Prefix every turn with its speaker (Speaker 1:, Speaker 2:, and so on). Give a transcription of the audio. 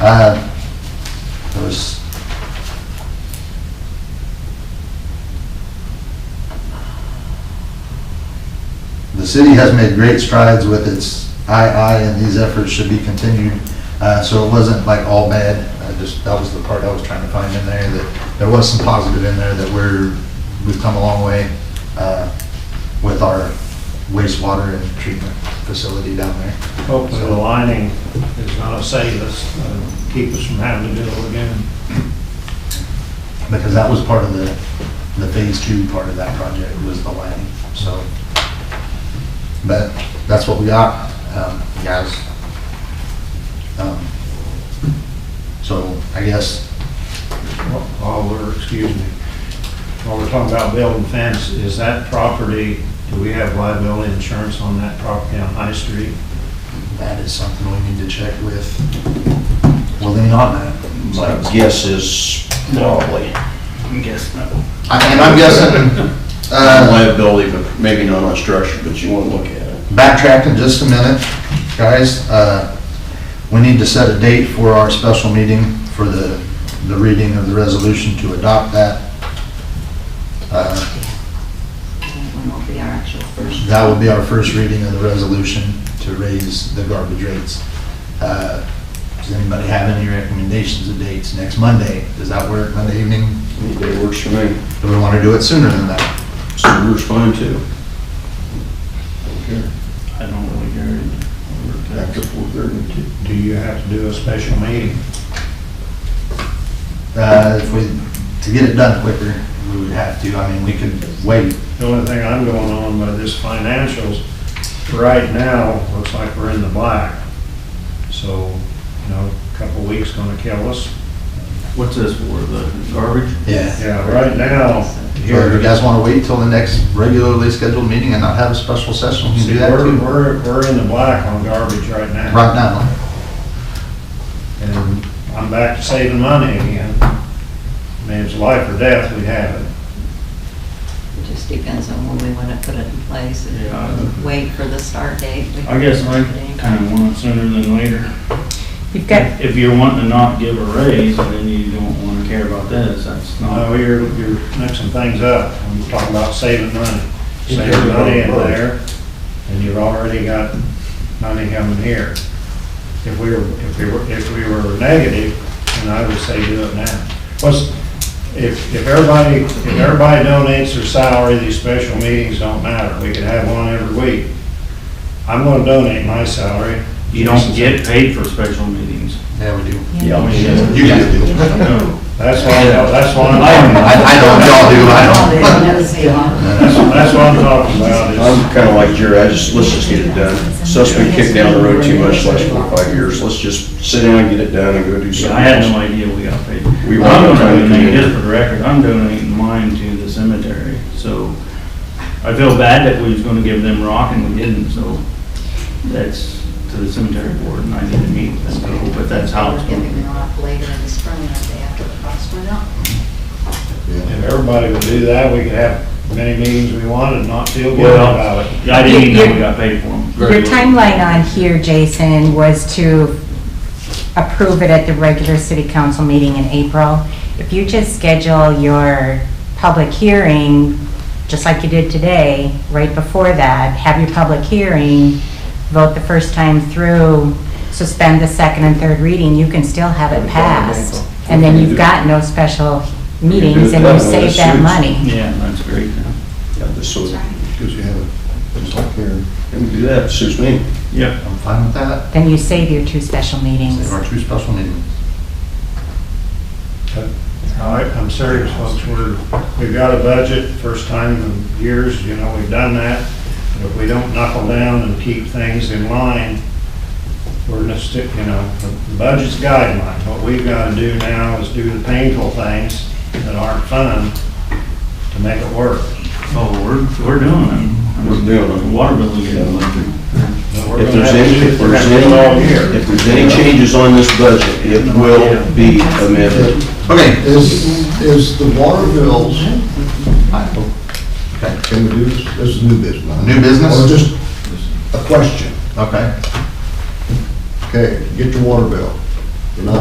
Speaker 1: Uh, There was... The city has made great strides with its II, and these efforts should be continued. Uh, So it wasn't like all bad, I just, that was the part I was trying to find in there, that there was some positive in there, that we're, we've come a long way uh, with our wastewater and treatment facility down there.
Speaker 2: Hopefully the lining is gonna save us, uh, keep us from having to do it again.
Speaker 1: because that was part of the, the phase two part of that project was the lighting, so. But that's what we got, um, guys. Um, So I guess,
Speaker 2: While we're, excuse me, while we're talking about building fence, is that property, do we have liability insurance on that property on High Street?
Speaker 1: that is something we need to check with, well, they not
Speaker 3: My
Speaker 1: know.
Speaker 3: guess is probably
Speaker 4: Guess not.
Speaker 1: I- And I'm guessing, uh,
Speaker 3: liability, but maybe not on structure, but you want to look at it.
Speaker 1: backtracking just a minute, guys. Uh, We need to set a date for our special meeting for the, the reading of the resolution to adopt that. Uh,
Speaker 4: When will be our actual first?
Speaker 1: That will be our first reading of the resolution to raise the garbage rates. Uh, Does anybody have any recommendations of dates? Next Monday, does that work, Monday evening?
Speaker 3: Any day works for me.
Speaker 1: Do we want to do it sooner than that?
Speaker 3: Summer's fine too.
Speaker 4: I don't really care.
Speaker 3: After four thirty too.
Speaker 2: Do you have to do a special meeting?
Speaker 1: Uh, If we, to get it done quicker, we would have to, I mean, we could wait.
Speaker 2: The only thing I'm going on by this financials, right now, looks like we're in the black. So, you know, a couple weeks gonna kill us.
Speaker 5: What's this for, the garbage?
Speaker 1: Yeah.
Speaker 2: Yeah, right now,
Speaker 1: Or
Speaker 2: here.
Speaker 1: if you guys want to wait till the next regularly scheduled meeting and not have a special session, we can
Speaker 2: See,
Speaker 1: do that
Speaker 2: we're,
Speaker 1: too.
Speaker 2: we're, we're in the black on garbage right now.
Speaker 1: Right now,
Speaker 2: And I'm back to saving money again. I mean, it's life or death, we have it.
Speaker 4: It just depends on when we want to put it in place
Speaker 5: Yeah.
Speaker 4: and wait for the start date. We
Speaker 5: I guess I
Speaker 4: can-
Speaker 5: kind of want it sooner than later.
Speaker 6: You've got,
Speaker 5: If you're wanting to not give a raise, and then you don't want to care about this, that's
Speaker 2: No,
Speaker 5: not.
Speaker 2: Oh, you're, you're mixing things up. I'm talking about saving money. Saving money in there, and you've already got money coming here. If we were, if we were, if we were negative, then I would say do it now. What's, if, if everybody, if everybody donates their salary, these special meetings don't matter. We could have one every week. I'm gonna donate my salary.
Speaker 5: You don't get paid for special meetings.
Speaker 1: yeah, we do.
Speaker 3: Yeah, I mean,
Speaker 1: You guys do.
Speaker 5: No.
Speaker 2: That's why, that's why, I'm-
Speaker 1: I, I know what y'all do, I
Speaker 4: They never see it.
Speaker 1: don't.
Speaker 2: that's what I'm talking about. is-
Speaker 3: I'm kind of like Jerry, I just, let's just get it done. Stuff's been kicked down the road too much the last four or five years. Let's just sit down and get it done and go do
Speaker 5: Yeah,
Speaker 3: something.
Speaker 5: I had no
Speaker 3: else.
Speaker 5: idea we got paid.
Speaker 3: We were
Speaker 5: I'm
Speaker 3: trying to
Speaker 5: donating,
Speaker 3: do it.
Speaker 5: just for the record, I'm donating mine to the cemetery, so I feel bad that we was gonna give them rock and we didn't, so that's to the cemetery board, and I didn't meet with them, so, but that's how it's
Speaker 4: We're
Speaker 5: going.
Speaker 4: Giving it off later in the spring, the day after the crops went up.
Speaker 1: Yeah.
Speaker 2: If everybody would do that, we could have many meetings we wanted, and not feel good
Speaker 5: Well-
Speaker 2: about it.
Speaker 5: I didn't even know we got paid for them.
Speaker 6: your timeline on here, Jason, was to approve it at the regular city council meeting in April. If you just schedule your public hearing, just like you did today, right before that, have your public hearing, vote the first time through, suspend the second and third reading, you can still have it passed. And then you've got no special meetings and you save that money.
Speaker 5: Yeah, that's great.
Speaker 3: Yeah, just so,
Speaker 4: That's right.
Speaker 3: because you have it, just like here. And we do that, suits me.
Speaker 5: Yeah.
Speaker 1: I'm fine with that,
Speaker 6: Then you save your two special meetings.
Speaker 1: save our two special meetings.
Speaker 2: All right, I'm serious, folks, we're, we've got a budget, first time in years, you know, we've done that. But if we don't knuckle down and keep things in line, we're gonna stick, you know, the the budget's guideline. What we've gotta do now is do the painful things that aren't fun to make it work.
Speaker 5: Oh, we're, we're doing it.
Speaker 3: We're doing it.
Speaker 5: The Water bill is getting electric.
Speaker 2: But we're
Speaker 3: If
Speaker 2: gonna
Speaker 3: there's
Speaker 2: have to
Speaker 3: any,
Speaker 2: do-
Speaker 3: if
Speaker 2: we're
Speaker 3: there's
Speaker 2: gonna do it all year.
Speaker 3: any, if there's any changes on this budget, it will be amended.
Speaker 1: Okay,
Speaker 7: Is, is the water bills, can we do this, this is new business?
Speaker 1: New business?
Speaker 7: Or just a question,
Speaker 1: okay.
Speaker 7: okay, get your water bill, you're not